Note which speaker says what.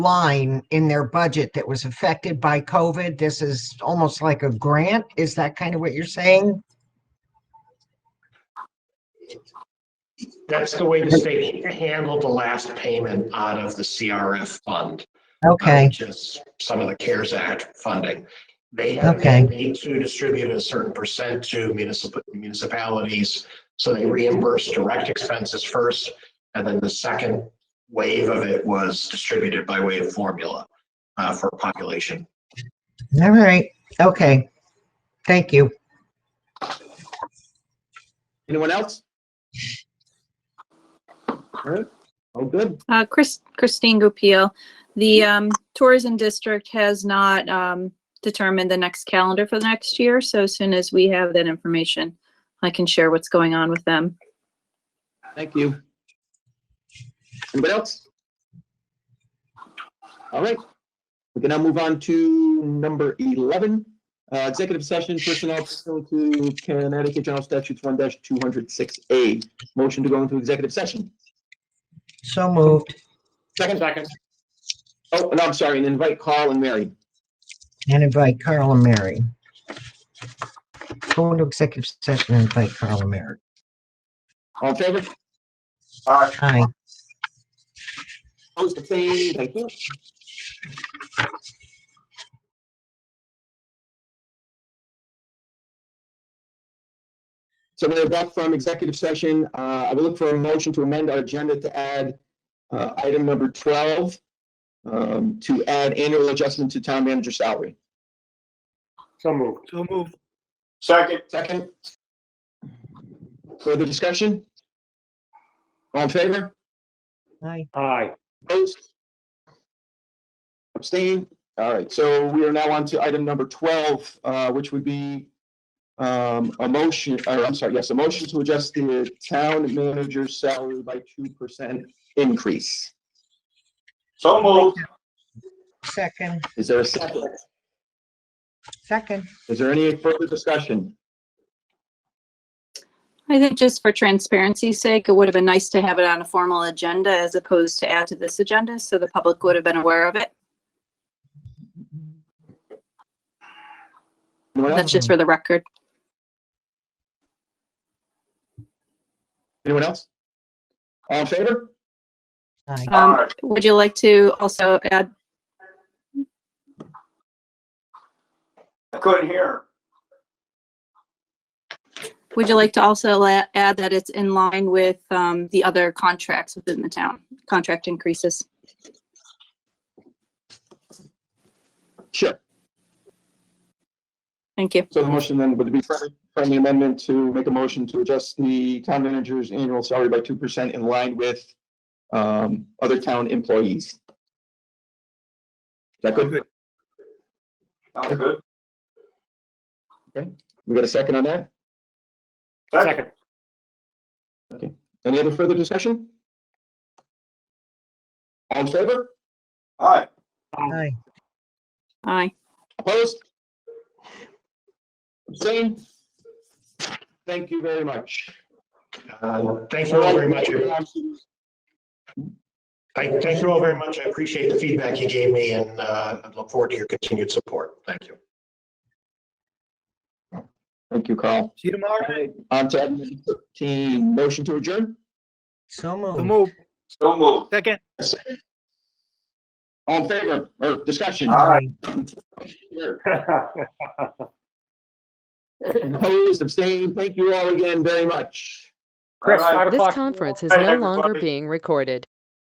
Speaker 1: line in their budget that was affected by COVID. This is almost like a grant. Is that kind of what you're saying?
Speaker 2: That's the way the state handled the last payment out of the CRF fund.
Speaker 1: Okay,
Speaker 2: Which is some of the CARES Act funding. They have a
Speaker 1: Okay.
Speaker 2: mandate to distribute a certain percent to municipal municipalities. So they reimburse direct expenses first, and then the second wave of it was distributed by way of formula uh, for population.
Speaker 1: Um, all right, okay. Thank you.
Speaker 3: Anyone else? All right, all good.
Speaker 4: Uh, Chris, Christine Goupil, the, um, tourism district has not, um, determined the next calendar for the next year. So as soon as we have that information, I can share what's going on with them.
Speaker 3: Thank you. Anybody else? All right, we can now move on to number 11, uh, executive session personnel pursuant to Connecticut General Statutes 1-206A. Motion to go into executive session.
Speaker 1: So moved
Speaker 3: Second. Second. Oh, and I'm sorry, and invite Carl and Mary.
Speaker 1: and invite Carl and Mary. Go into executive session and invite Carl and Mary.
Speaker 3: All in favor?
Speaker 1: Aye.
Speaker 3: Opposed, abstained, thank you. So we're back from executive session. Uh, I will look for a motion to amend our agenda to add uh, item number 12, um, to add annual adjustment to town manager salary.
Speaker 5: So moved. So moved.
Speaker 6: Second,
Speaker 3: Second? Further discussion? All in favor?
Speaker 1: Aye.
Speaker 5: Aye.
Speaker 3: Opposed? Abstain. All right, so we are now on to item number twelve, uh, which would be um, a motion, or I'm sorry, yes, a motion to adjust the town manager's salary by two percent increase.
Speaker 6: so moved.
Speaker 1: Second,
Speaker 3: Is there a second?
Speaker 1: second.
Speaker 3: Is there any further discussion?
Speaker 4: I think just for transparency's sake, it would have been nice to have it on a formal agenda as opposed to add to this agenda, so the public would have been aware of it.
Speaker 3: Anyone
Speaker 4: That's
Speaker 3: else?
Speaker 4: just for the record.
Speaker 3: Anyone else? All in favor?
Speaker 1: Aye.
Speaker 4: Um, would you like to also add
Speaker 6: I couldn't hear.
Speaker 4: Would you like to also la- add that it's in line with um, the other contracts within the town, contract increases?
Speaker 3: Sure.
Speaker 4: Thank you.
Speaker 3: So the motion then would be friendly- friendly amendment to make a motion to adjust the town manager's annual salary by two percent in line with um, other town employees. Is that good?
Speaker 6: Sounds good.
Speaker 3: We got a second on that?
Speaker 5: Second.
Speaker 3: Any other further discussion? All in favor?
Speaker 6: All right,
Speaker 1: Aye.
Speaker 4: Aye.
Speaker 3: Opposed? Abstained? Thank you very much.
Speaker 2: Uh, Thank you all very much. I thank you all very much. I appreciate the feedback you gave me and uh, I look forward to your continued support. Thank you.
Speaker 3: Thank you, Carl.
Speaker 5: See you tomorrow.
Speaker 3: On to item thirteen, motion to adjourn?
Speaker 1: So
Speaker 5: So
Speaker 1: moved.
Speaker 5: moved.
Speaker 6: so moved.
Speaker 5: Second.
Speaker 3: All in favor or discussion?
Speaker 1: Aye.
Speaker 3: Opposed, abstained, thank you all again very much.
Speaker 5: Chris,
Speaker 6: All right.
Speaker 5: five o'clock.
Speaker 7: This conference is
Speaker 6: Hey,
Speaker 7: no longer
Speaker 6: everybody.
Speaker 7: being recorded.